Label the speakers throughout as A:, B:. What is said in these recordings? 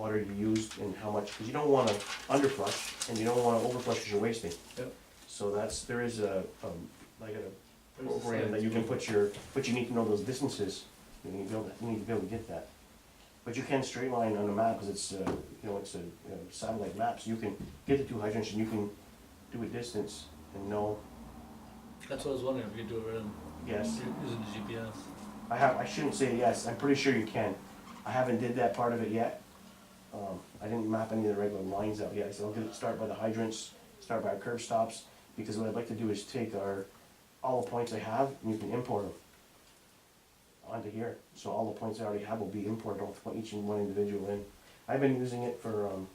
A: powder you used and how much, because you don't wanna underflush, and you don't wanna overflush because you're wasting.
B: Yep.
A: So that's, there is a, um, like a
B: There's a
A: program that you can put your, but you need to know those distances, you need to be able, to- you need to be able to get that. But you can straight line on a map, because it's, uh, you know, it's a uh, satellite map, so you can get the two hydrants and you can do a distance and know,
B: That's what I was wondering, if you could do it right on,
A: yes,
B: using the GPS.
A: I have, I shouldn't say yes, I'm pretty sure you can. I haven't did that part of it yet. Um, I didn't map any of the regular lines out yet, so I'll get it, start by the hydrants, start by our curb stops, because what I'd like to do is take our, all the points I have, and you can import them onto here, so all the points I already have will be imported, I'll put each and one individual in. I've been using it for, um,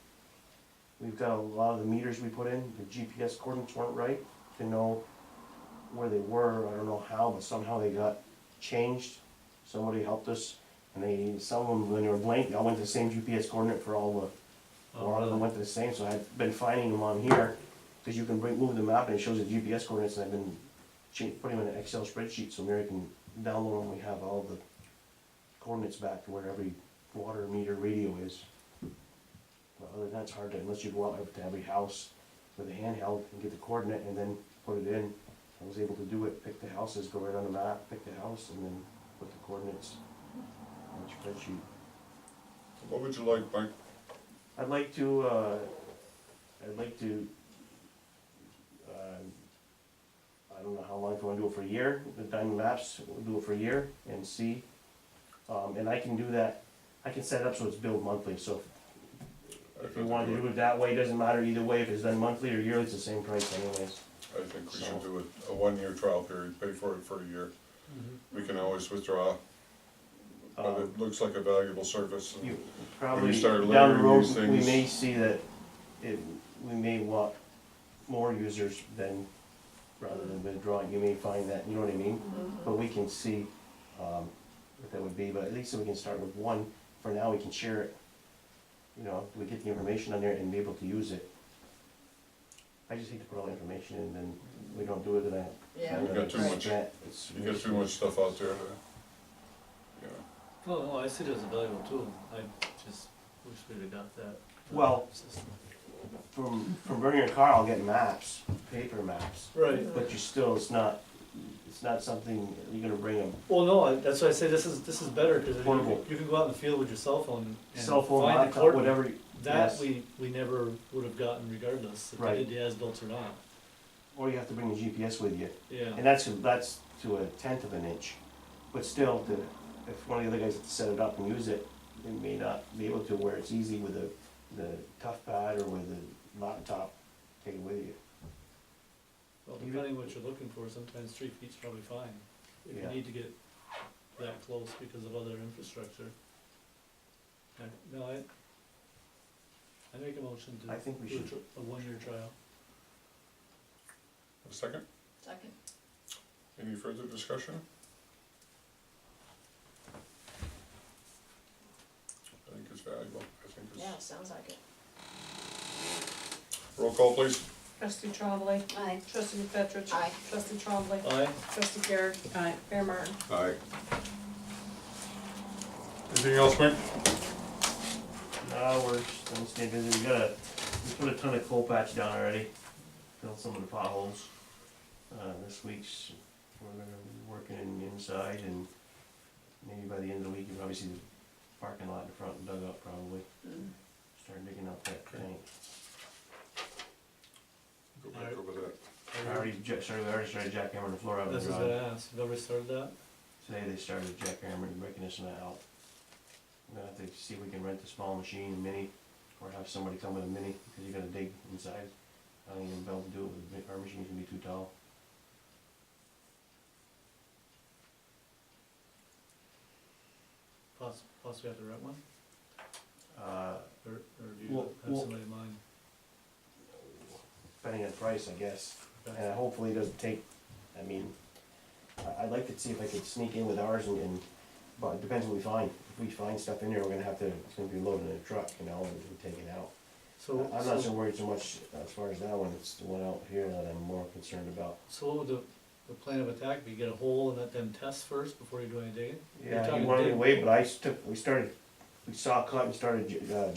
A: we've got a lot of the meters we put in, the GPS coordinates weren't right, to know where they were, I don't know how, but somehow they got changed. Somebody helped us, and they, some of them, when they were blank, they all went to the same GPS coordinate for all the, a lot of them went to the same, so I've been finding them on here, because you can bring, move the map and it shows the GPS coordinates, and I've been cha- putting them in an Excel spreadsheet, so Mary can download them, we have all the coordinates back to where every water meter radio is. But other than that, it's hard to, unless you go out to every house with a handheld and get the coordinate and then put it in. I was able to do it, pick the houses, go right on the map, pick the house, and then put the coordinates on the spreadsheet.
C: What would you like, Mike?
A: I'd like to, uh, I'd like to, um, I don't know how long, if I wanna do it for a year, the diamond maps, we'll do it for a year and see. Um, and I can do that, I can set it up so it's billed monthly, so if you wanted to do it that way, it doesn't matter either way, if it's done monthly or yearly, it's the same price anyways.
C: I think we should do it, a one-year trial period, pay for it for a year. We can always withdraw, but
A: Mm-hmm. Um,
C: it looks like a valuable service.
A: you probably,
C: start
A: down the
C: layering
A: road,
C: these
A: we may
C: things-
A: see that it, we may want more users than, rather than withdrawing, you may find that, you know what I mean? But we can see, um, what that would be, but at least we can start with one, for now, we can share it. You know, we get the information on there and be able to use it. I just hate to put all the information in, and then we don't do it, then I.
D: Yeah,
C: We've got too
D: right.
C: much.
A: It's-
C: You get too much stuff out there, to- you know.
B: Well, no, I see it as a valuable tool, I just wish we'd have got that.
A: Well-
B: System.
A: From, from burning your car, I'll get maps, paper maps.
B: Right,
A: But you still, it's not, it's not something, you're gonna bring a
B: well, no, I- that's why I say this is, this is better, cause you
A: Portable.
B: can, you can go out in the field with your cell phone and
A: cell phone,
B: find the
A: laptop,
B: coordinate.
A: whatever, you-
B: That
A: Yes.
B: we, we never would have gotten regardless, if
A: Right.
B: they did the as-built or not,
A: or you have to bring the GPS with you.
B: yeah.
A: And that's, that's to a tenth of an inch. But still, to, if one of the other guys had to set it up and use it, they may not be able to where it's easy with a, the tough pad or with a laptop, take it with you.
B: Well, depending what you're looking for, sometimes three feet's probably fine. If
A: Yeah.
B: you need to get that close because of other infrastructure. I- No, I, I make a motion
A: I
B: to
A: think we
B: do a
A: should,
B: tr- a one-year trial.
C: A second,
D: Second.
C: any further discussion? I think it's valuable, I think
D: Yeah,
C: it's,
D: sounds like it.
C: roll call please.
E: Trustee Trombley.
D: Aye.
E: Trustee McFetrich.
D: Aye.
E: Trustee Trombley.
B: Aye,
E: Trustee Garrett. Aye. Mayor Martin.
C: Aye. Anything else, Mike?
A: now we're, just gonna stay busy, we got a, we put a ton of coal patch down already, filled some of the potholes. Uh, this week's, we're gonna be working in- inside and maybe by the end of the week, you probably see the parking lot in front dug up probably,
D: Mm.
A: start digging up that tank.
C: Go back over that.
A: I already, ja- started, I already started jackhammering the floor out of
B: this
A: the
B: is what
A: garage.
B: I asked, you've ever started that?
A: Today they started jackhammering, breaking this and that out. I'm gonna have to see if we can rent a small machine, a mini, or have somebody come with a mini, because you gotta dig inside. I don't even be able to do it with, a big- our machine's gonna be too tall.
B: Poss- Possibly have to rent one,
A: Uh,
B: or, or do you
A: Well,
B: have
A: well-
B: somebody in mind?
A: depending on price, I guess, and
B: Okay.
A: hopefully it doesn't take, I mean, I- I'd like to see if I could sneak in with ours and, and, but it depends what we find. If we find stuff in there, we're gonna have to, it's gonna be loaded in a truck, you know, and and take it out.
B: So,
A: I'm not so
B: so,
A: worried so much as far as that one, it's the one out here that I'm more concerned about.
B: so what would the, the plan of attack be, get a hole and let them test first before you do any digging? You're
A: Yeah, he
B: talking
A: wanted to
B: dig-
A: wait, but I took, we started, we saw a cut and started, uh,